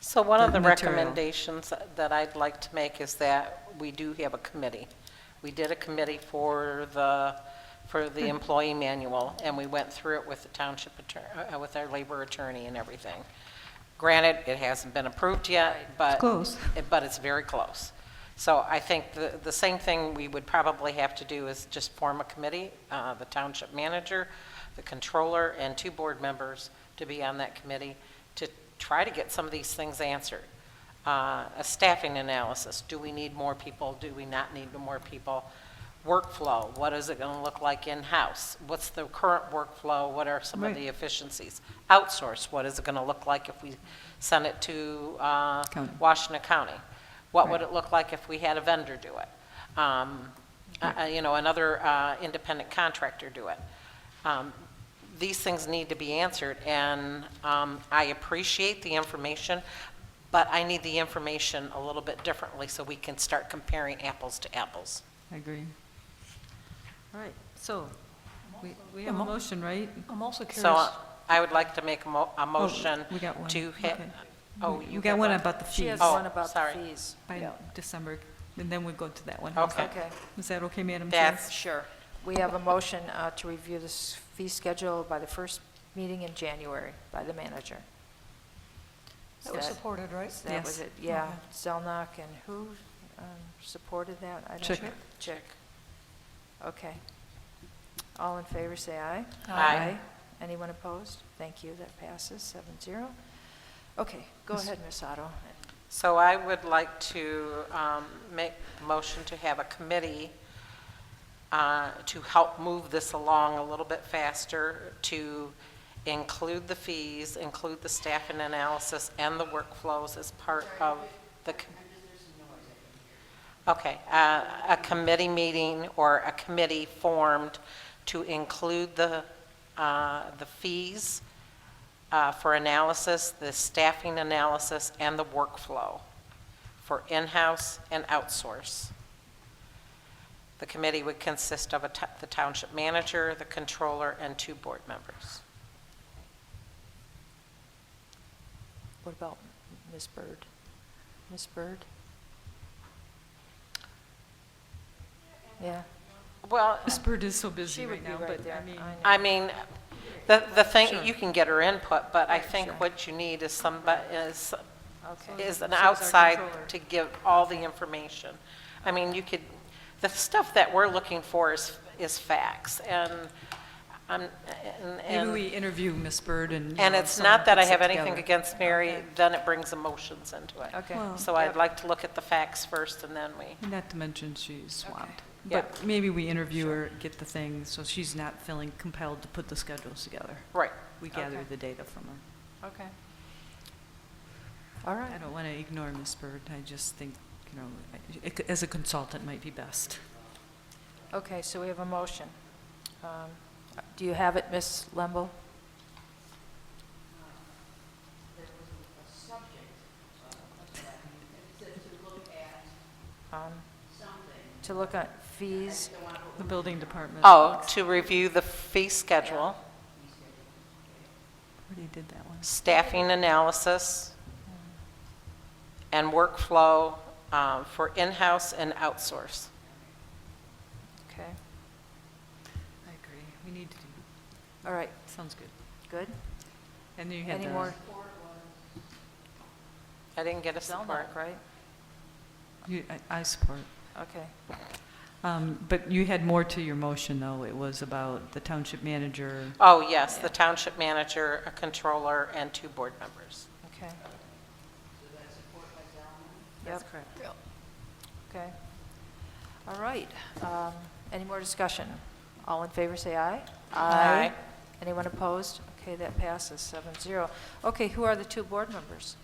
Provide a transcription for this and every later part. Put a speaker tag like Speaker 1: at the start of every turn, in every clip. Speaker 1: So one of the
Speaker 2: material.
Speaker 1: recommendations that I'd like to make is that we do have a committee. We did a committee for the, for the employee manual, and we went through it with the township attorney, with our labor attorney and everything. Granted, it hasn't been approved yet, but.
Speaker 2: close.
Speaker 1: But it's very close. So I think the, the same thing we would probably have to do is just form a committee, uh, the township manager, the controller, and two board members to be on that committee to try to get some of these things answered. Uh, A staffing analysis, do we need more people, do we not need more people? Workflow, what is it going to look like in-house? What's the current workflow, what are some of
Speaker 2: Right.
Speaker 1: the efficiencies? Outsource, what is it going to look like if we send it to uh,
Speaker 2: County.
Speaker 1: Washington County? What would it look like if we had a vendor do it? Um, uh, uh, You know, another uh, independent contractor do it? Um, These things need to be answered, and um, I appreciate the information, but I need the information a little bit differently so we can start comparing apples to apples.
Speaker 2: I agree. All right, so we we have
Speaker 3: I'm
Speaker 2: a
Speaker 3: al-
Speaker 2: motion, right?
Speaker 3: I'm also
Speaker 1: So
Speaker 3: curious,
Speaker 1: uh, I would like to make a mo- a motion
Speaker 2: Oh, we got one.
Speaker 1: to hit,
Speaker 2: Okay.
Speaker 1: oh,
Speaker 2: We-
Speaker 1: you
Speaker 2: We got one about the
Speaker 3: she
Speaker 2: fees
Speaker 3: has
Speaker 1: Oh,
Speaker 3: one about the
Speaker 1: sorry.
Speaker 3: fees.
Speaker 2: by
Speaker 3: Yeah.
Speaker 2: December, and then we go to that one.
Speaker 1: Okay.
Speaker 3: Okay,
Speaker 2: Is that okay, Madam Chair?
Speaker 1: That's,
Speaker 3: sure. We have a motion uh, to review this fee schedule by the first meeting in January by the manager.
Speaker 4: That was
Speaker 3: Is
Speaker 4: supported, right?
Speaker 3: So That was
Speaker 2: Yes.
Speaker 3: it, yeah. Zelnok and who um, supported that? I don't
Speaker 2: Chick.
Speaker 3: know. Chick. Okay. All in favor, say aye.
Speaker 1: Aye.
Speaker 3: Anyone opposed? Thank you, that passes, seven zero. Okay, go ahead, Ms. Otto.
Speaker 1: So I would like to um, make a motion to have a committee uh, to help move this along a little bit faster, to include the fees, include the staff and analysis, and the workflows as part of the... com- Okay, uh, a committee meeting or a committee formed to include the, uh, the fees uh, for analysis, the staffing analysis, and the workflow for in-house and outsource. The committee would consist of a to- the township manager, the controller, and two board members.
Speaker 3: What about Ms. Bird? Ms. Bird? Yeah.
Speaker 1: Well,
Speaker 2: Miss Bird is so busy
Speaker 3: She would
Speaker 2: right
Speaker 3: be
Speaker 2: now,
Speaker 3: right
Speaker 2: but
Speaker 3: there.
Speaker 2: I mean,
Speaker 3: I know.
Speaker 1: I mean, the, the
Speaker 2: Sure.
Speaker 1: thing, you can get her input, but I
Speaker 3: Right,
Speaker 1: think
Speaker 3: sure.
Speaker 1: what you need is somebody, is,
Speaker 3: Okay.
Speaker 1: is an
Speaker 2: So is our
Speaker 1: outside
Speaker 2: controller.
Speaker 1: to give all the information. I mean, you could, the stuff that we're looking for is, is facts, and, I'm- and.
Speaker 2: maybe
Speaker 1: and-
Speaker 2: we interview Miss Bird and. you
Speaker 1: And
Speaker 2: know,
Speaker 1: it's
Speaker 2: someone
Speaker 1: not that I
Speaker 2: puts it
Speaker 1: have anything
Speaker 2: together.
Speaker 1: against Mary, then it brings emotions into it.
Speaker 3: Okay.
Speaker 2: Well-
Speaker 1: So I'd like to look at the facts first and then we,
Speaker 2: Not to mention she's swamped.
Speaker 1: Yeah.
Speaker 2: But maybe we interview her, get the thing, so she's not feeling compelled to put the schedules together.
Speaker 1: right.
Speaker 2: We gather
Speaker 3: Okay.
Speaker 2: the data from her.
Speaker 3: Okay. All
Speaker 2: I
Speaker 3: right.
Speaker 2: don't want to ignore Miss Bird, I just think, you know, I- it c- as a consultant might be best.
Speaker 3: Okay, so we have a motion. Um, Do you have it, Ms. Lemble? Um, To look at fees,
Speaker 2: The building department.
Speaker 1: Oh, to review the fee schedule,
Speaker 2: Already did that one.
Speaker 1: staffing analysis, and workflow um, for in-house and outsource.
Speaker 3: okay.
Speaker 2: I agree, we need to do,
Speaker 3: All right,
Speaker 2: sounds good.
Speaker 3: good.
Speaker 2: And then you had uh,
Speaker 3: Any
Speaker 2: the,
Speaker 3: more?
Speaker 1: I didn't get a support.
Speaker 3: Zelnok, right?
Speaker 2: you- I- I support.
Speaker 3: Okay.
Speaker 2: Um, But you had more to your motion, though. It was about the township manager.
Speaker 1: Oh, yes, the township manager, a controller, and two board members.
Speaker 3: Okay. That's correct. Okay. All right. Um, Any more discussion? All in favor, say aye.
Speaker 1: Aye.
Speaker 3: Anyone opposed? Okay, that passes, seven zero. Okay, who are the two board members?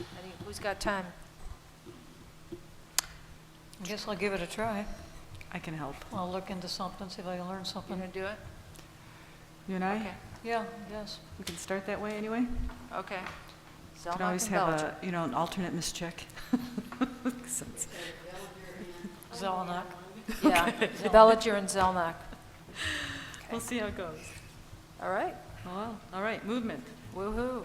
Speaker 3: Any- Who's got time?
Speaker 4: I guess I'll give it a try.
Speaker 2: I can help.
Speaker 4: I'll look into something, see if I can learn
Speaker 3: You
Speaker 4: something.
Speaker 3: gonna do it?
Speaker 2: You and
Speaker 3: Okay.
Speaker 2: I,
Speaker 4: Yeah, yes.
Speaker 2: we can start that way, anyway?
Speaker 3: Okay.
Speaker 2: Could
Speaker 3: Zelnok
Speaker 2: always
Speaker 3: and
Speaker 2: have
Speaker 3: Belcher.
Speaker 2: a, you know, an alternate mischeck. Since-
Speaker 4: Zelenak.
Speaker 3: Yeah, Bellinger and Zelnok.
Speaker 2: We'll see how it goes.
Speaker 3: All right,
Speaker 2: Oh, well, all right, movement.
Speaker 3: woo-hoo.